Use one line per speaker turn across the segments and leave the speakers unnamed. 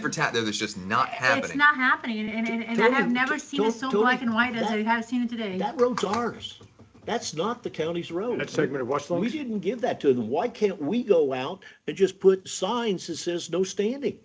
for tat there that's just not happening.
It's not happening, and, and, and- and I
Tony,
have never
t-
seen it
Tony,
so
Tony,
black and white as
that-
I have seen it today.
That road's ours. That's not the county's road.
That segment of West
We
Lake?
didn't give that to them. Why can't we go out and just put signs that says no standing?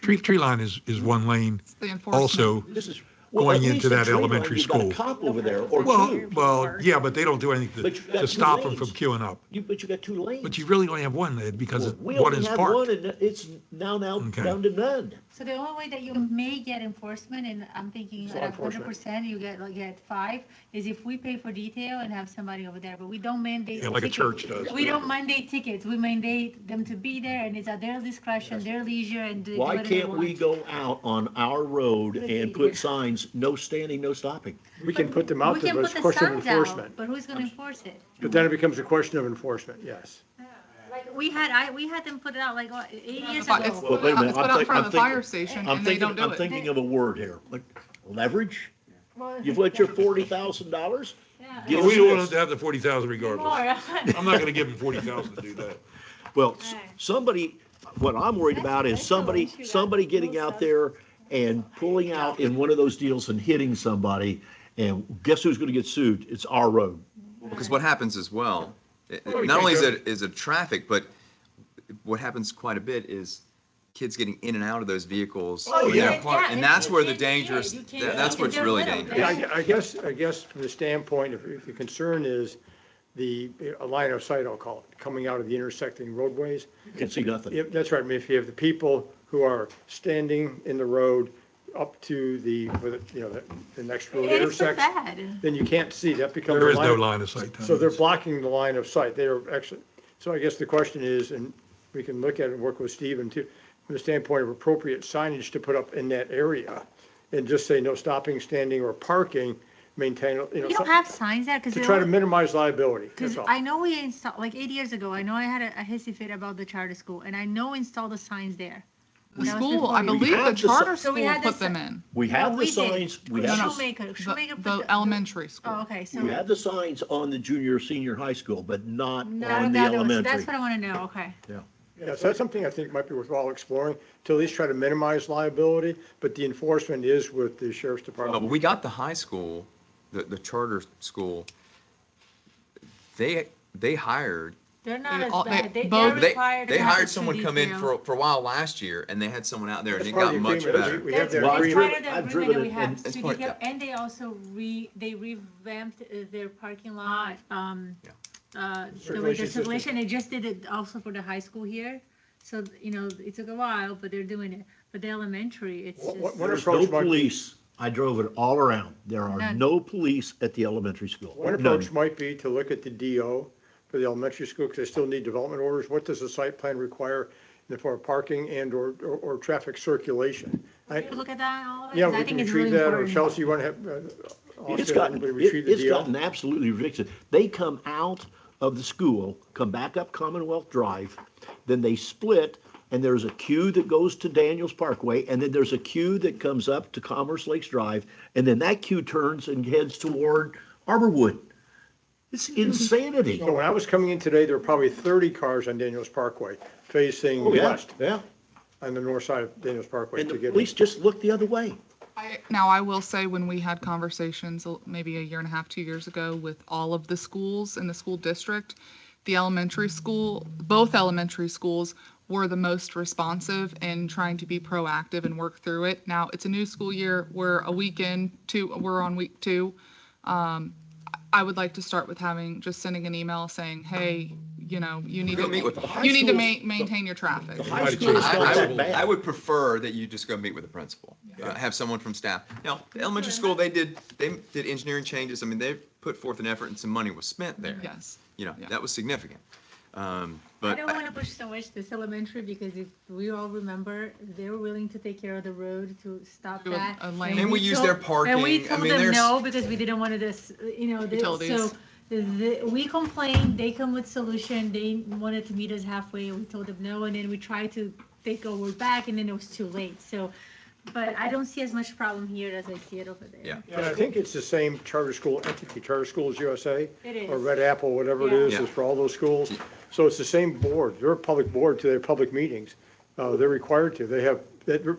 Tree, tree line is, is one lane
The enforcement.
also.
This is. well,
Going
at least
into
in
that
Tree Line,
elementary
you've got a
school.
Cop over there or
Well,
two.
well, yeah, but they don't do anything
But
to,
you've got
to
two
stop them from
lanes.
queuing up.
You, but you got two lanes.
But you really only have one, Ed, because
Well,
it-
We
one
only
is
have one
parked.
and it's now, now
Okay.
down to none.
So the only way that you may get enforcement, and I'm thinking
It's law
at hundred
enforcement.
percent, you get, like, get five, is if we pay for detail and have somebody over there, but we don't mandate.
Yeah, like a
tickets.
church does.
We don't mandate tickets, we mandate them to be there, and it's at their discretion, their leisure, and do
Why
whatever they
can't we
want.
go out on our road and put signs, no standing, no stopping?
We can put them
We
out there,
can
but
put
it's a
the
question of
signs out,
enforcement.
but who's gonna enforce it?
But then it becomes a question of enforcement, yes.
Like, we had, I, we had them put it out like what, eight years
It's it's
ago.
Well, wait a minute,
put
I'm
out
think-
in front of
I'm
the fire
thinking-
station
I'm
and they don't
thinking,
do
I'm
it.
thinking of a word here, like leverage? You've let your forty thousand dollars?
Yeah.
Give
We
us
don't want them
this.
to have the forty thousand regardless. I'm not gonna give them forty thousand to do that.
Well, s- somebody, what I'm worried about is somebody, somebody getting out there and pulling out in one of those deals and hitting somebody. And guess who's gonna get sued? It's our road.
Because what happens as well, it-
Well, we
not only is
can't
it is it traffic, but what happens quite a bit is kids getting in and out of those vehicles.
Oh,
when they're
yeah.
parked,
Yeah,
And
and
that's
you
where the
can't- yeah,
dangerous,
you can't
that- that's
do
where
it.
it's really
They're little,
dangerous.
Yeah, I I guess, I guess from the standpoint, if, if the concern is the, a line of sight, I'll call it, coming out of the intersecting roadways,
You Can see nothing.
If, that's right, I mean, if you have the people who are standing in the road up to the, with the- you know, the- the next road
It's so
intersection,
bad.
then you can't see, that becomes.
There
a
is no line of sight.
So they're blocking the line of sight, they are actually, so I guess the question is, and we can look at it and work with Stephen too, from the standpoint of appropriate signage to put up in that area, and just say no stopping, standing, or parking, maintain, you know,
We don't
some-
have signs there, because.
to try to minimize liability, that's
Because
all.
I know we installed, like eight years ago, I know I had a, a hissy fit about the charter school, and I know installed the signs there.
The
That was
school, I
before.
believe the
had the si-
charter
So we
school
had the
put them
si-
in,
We
No,
have the
we did.
signs, we
No, no.
have,
Shoemaker, Shoemaker.
the,
put
the elementary
Oh,
school.
okay, so.
we have the signs on the junior, senior high school, but not
Not
on
on
the
the other ones.
elementary.
That's what I want to know, okay.
Yeah, so that's something I think might be worthwhile exploring, to at least try to minimize liability, but the enforcement is with the sheriff's
No, but
department.
we got the high school, the, the charter school. They, they hired,
They're not
They
as
all- they
bad. They, they're
both-
they,
required. to
they
have
hired
the
someone
two
come in
detail.
for, for a while last year and they had someone out there and
That's
it
part of
got
the
much
agreement.
better.
We have
That's
that
Well, I've
part of
agreement.
driven- I've
the agreement that
driven
we
it,
have.
and
So
it's
they
part-
go- And they also re, they revamped uh, their parking lot, um,
Yeah.
uh, the way
Circulation
the
system.
circulation, they just did it also for the high school here. So, you know, it took a while, but they're doing it. But the elementary, it's
What- what-
just.
what
There's
approach
no
might be-
police. I drove it all around. There are
None.
no police at the elementary school.
One
None.
approach might be to look at the DO for the elementary school, because they still need development orders. What does the site plan require in the form of parking and or, or, or traffic circulation? I-
You Look at that, all of it,
Yeah,
'cause I
we
think
can
it's
treat
really
that, or
important.
Chelsea, you want to have, uh, I'll
It's
say
gotten, it-
everybody retrieve the
it's
DO?
gotten absolutely ridiculous. They come out of the school, come back up Commonwealth Drive, then they split, and there's a queue that goes to Daniels Parkway, and then there's a queue that comes up to Commerce Lakes Drive, and then that queue turns and heads toward Arborwood. It's insanity.
Mm-hmm. So when I was coming in today, there were probably thirty cars on Daniels Parkway facing
Oh, yeah,
west,
yeah.
on the north side of Daniels Parkway
And
to
the
get.
police just look the other way.
I, now, I will say, when we had conversations uh, maybe a year and a half, two years ago, with all of the schools in the school district, the elementary school, both elementary schools were the most responsive in trying to be proactive and work through it. Now, it's a new school year, we're a weekend, two, we're on week two. Um, I would like to start with having, just sending an email saying, hey, you know, you need
We're gonna meet with
to,
the high
you need to
schools.
ma- maintain your traffic.
The high
Mighty
school is
I,
It's
not
I
that
would,
bad.
I would prefer that you just go meet with the principal, Uh, have someone from staff. Now, the elementary school, they did, they did engineering changes. I mean, they put forth an effort and some money was spent there.
Yes.
You know,
Yeah.
that was significant. Um,
I
but
don't
I-
want to push so much this elementary because if we all remember, they were willing to take care of the road to stop
Do a-
that.
a lane.
And we use their
told- And
parking.
we
I
told
mean,
them
there's-
no because we didn't want to this, you know, this, so.
Utilities.
the- we complained, they come with solution, they wanted to meet us halfway, we told them no, and then we tried to take over back and then it was too late, so. But I don't see as much problem here as I see it over there.
yeah.
And I think it's the same charter school entity, Charter Schools USA.
It
Or
is.
Red Apple, whatever it
Yeah.
is,
Yeah.
is for all those schools. So it's the same board. They're a public board to their public meetings. Uh, they're required to. They have, that,